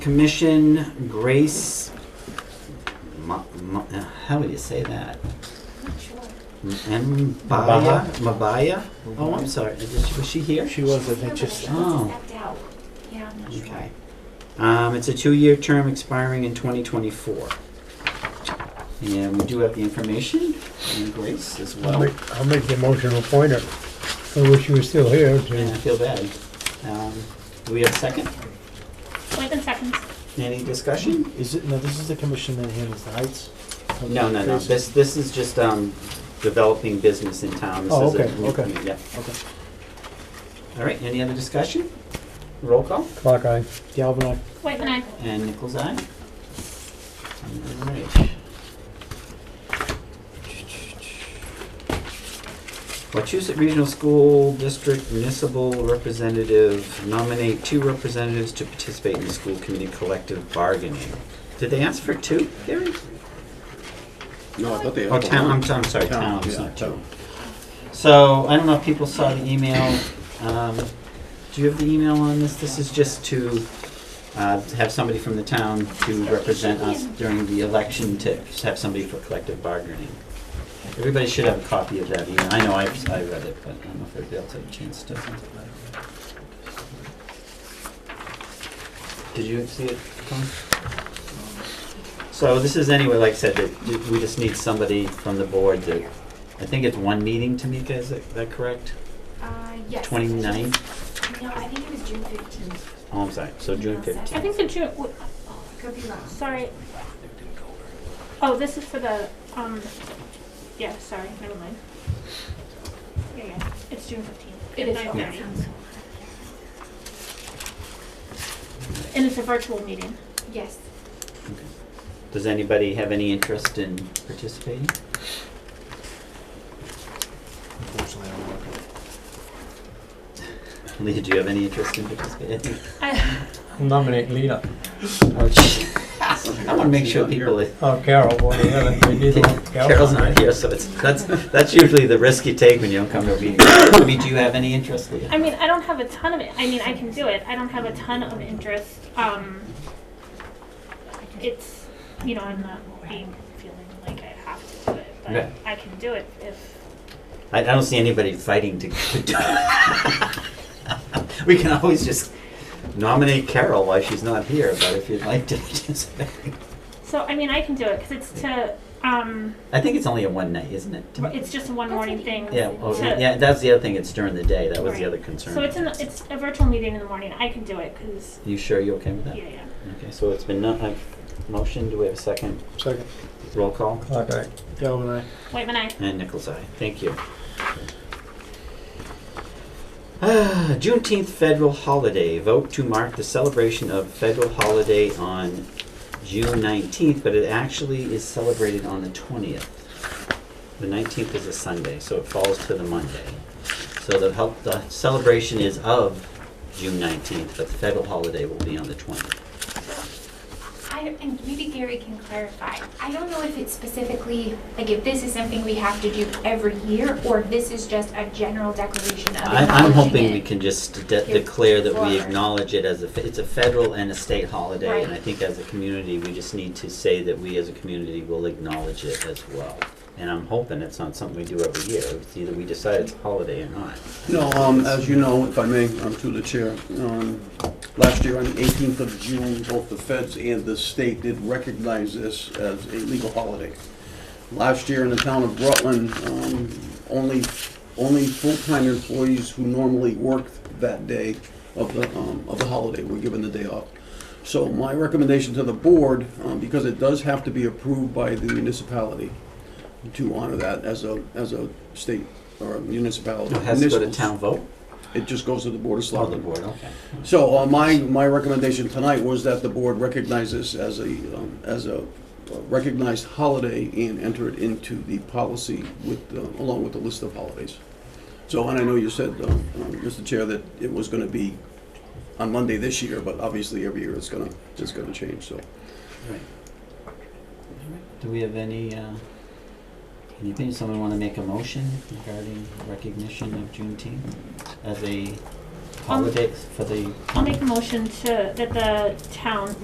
Commission Grace. Ma, Ma, uh, how do you say that? M- Mabaya. Mabaya. Oh, I'm sorry. Is she- was she here? She was, I think, just, Oh. Stepped out. Yeah, I'm not sure. Okay. Um, it's a two-year term expiring in 2024. And we do have the information and Grace as I'll well. make, I'll make the motion to appoint her. I wish she was still here. to- And I feel bad. Um, do we have a second? Within seconds. Any discussion? is it, no, this is the commission that handles the heights? No, no, no. This this is just um, developing business in town. This Oh, is a okay, new okay. community. Yeah. Okay. All right. Any other discussion? Roll call. Clock eye. Galvin, I, Whitman, I. And Nichols eye. All right. Wachusett Regional School District Municipal Representative nominate two representatives to participate in the school committee collective bargaining. Did they ask for two, Gary? No, I thought they had. Oh, the town, I'm, one. I'm sorry, Town, town, it's yeah, not two. town. So, I don't know if people saw the email, um, do you have the email on this? This is just to, uh, have somebody from the town to represent us during the election, to have somebody for collective bargaining. Everybody should have a copy of that email, I know I, I read it, but I don't know if everybody else had a chance to. Did you see it, Tom? So this is anyway, like I said, that we just need somebody from the board that, I think it's one meeting, Tamika, is that, that correct? Uh, yes. Twenty-nine? No, I think it was June fifteenth. Oh, I'm sorry, so June I fifteenth. think the June, w- Oh, I could be wrong. Sorry. Oh, this is for the, um, yeah, sorry, never mind. Yeah, yeah, it's June fifteenth. It is. okay. Yeah. And it's a virtual meeting. Yes. Does anybody have any interest in participating? unfortunately, I don't work. Leah, do you have any interest in participating? I, Nominate Lena I wanna make sure people, or Oh, Carol, one of the other. We need one. Carol's not here, so it's, that's, that's usually the risk you take when you don't come to a meeting. I mean, do you have any interest, Leah? I mean, I don't have a ton of it, I mean, I can do it, I don't have a ton of interest, um, it's, you know, I'm not being, feeling like I have to do it, Yeah. but I can do it if, I, I don't see anybody fighting to, to do We can always just nominate Carol while she's not here, but if you'd like to participate. so, I mean, I can do it, cause it's to, um, I think it's only a one night, isn't it? Tamika? it's just a one That's morning an thing. Yeah, well, to- yeah, that's the other thing, it's during the day, that was the Right. other concern. So it's in, it's a virtual meeting in the morning. I can do it because You sure you're okay with that? yeah, yeah. Okay, so it's been, no- uh, motion, do we have a second? Second, Roll call? Clock eye. Galvin, I. Whitman, I. And Nichols Eye. Thank you. Ah, Juneteenth federal holiday. Vote to mark the celebration of federal holiday on June 19th, but it actually is celebrated on the 20th. The 19th is a Sunday, so it falls to the Monday. So the help, the celebration is of June 19th, but the federal holiday will be on the 20th. I, don't- and maybe Gary can clarify. I don't know if it's specifically, like if this is something we have to do every year or if this is just a general declaration of. I, I'm hoping acknowledging we it. can just de- Here, declare that we forward. acknowledge it as a, fe- it's a federal and a state holiday, and I Right. think as a community, we just need to say that we as a community will acknowledge it as well. And I'm hoping it's not something we do every year, it's either we decide it's a holiday or not. No, um, as you know, if I may, um, through the chair, um, last year on the eighteenth of June, both the feds and the state did recognize this as a legal holiday. Last year in the town of Rutland, um, only, only full-time employees who normally worked that day of the, um, of the holiday were given the day off. So my recommendation to the board, um, because it does have to be approved by the municipality to honor that as a, as a state or a municipality. It has to go to Municipals. town vote? It just goes to the Board of Oh, the Selectmen. board, okay. So uh, my, my recommendation tonight was that the board recognize this as a, um, as a recognized holiday and enter it into the policy with, uh, along with the list of holidays. So, and I know you said, um, um, Mr. Chair, that it was going to be on Monday this year, but obviously every year it's going to, it's going to change, so. Do we have any, uh, anything, someone wanna make a motion regarding recognition of Juneteenth as a holiday for the? I'll make a motion to that the town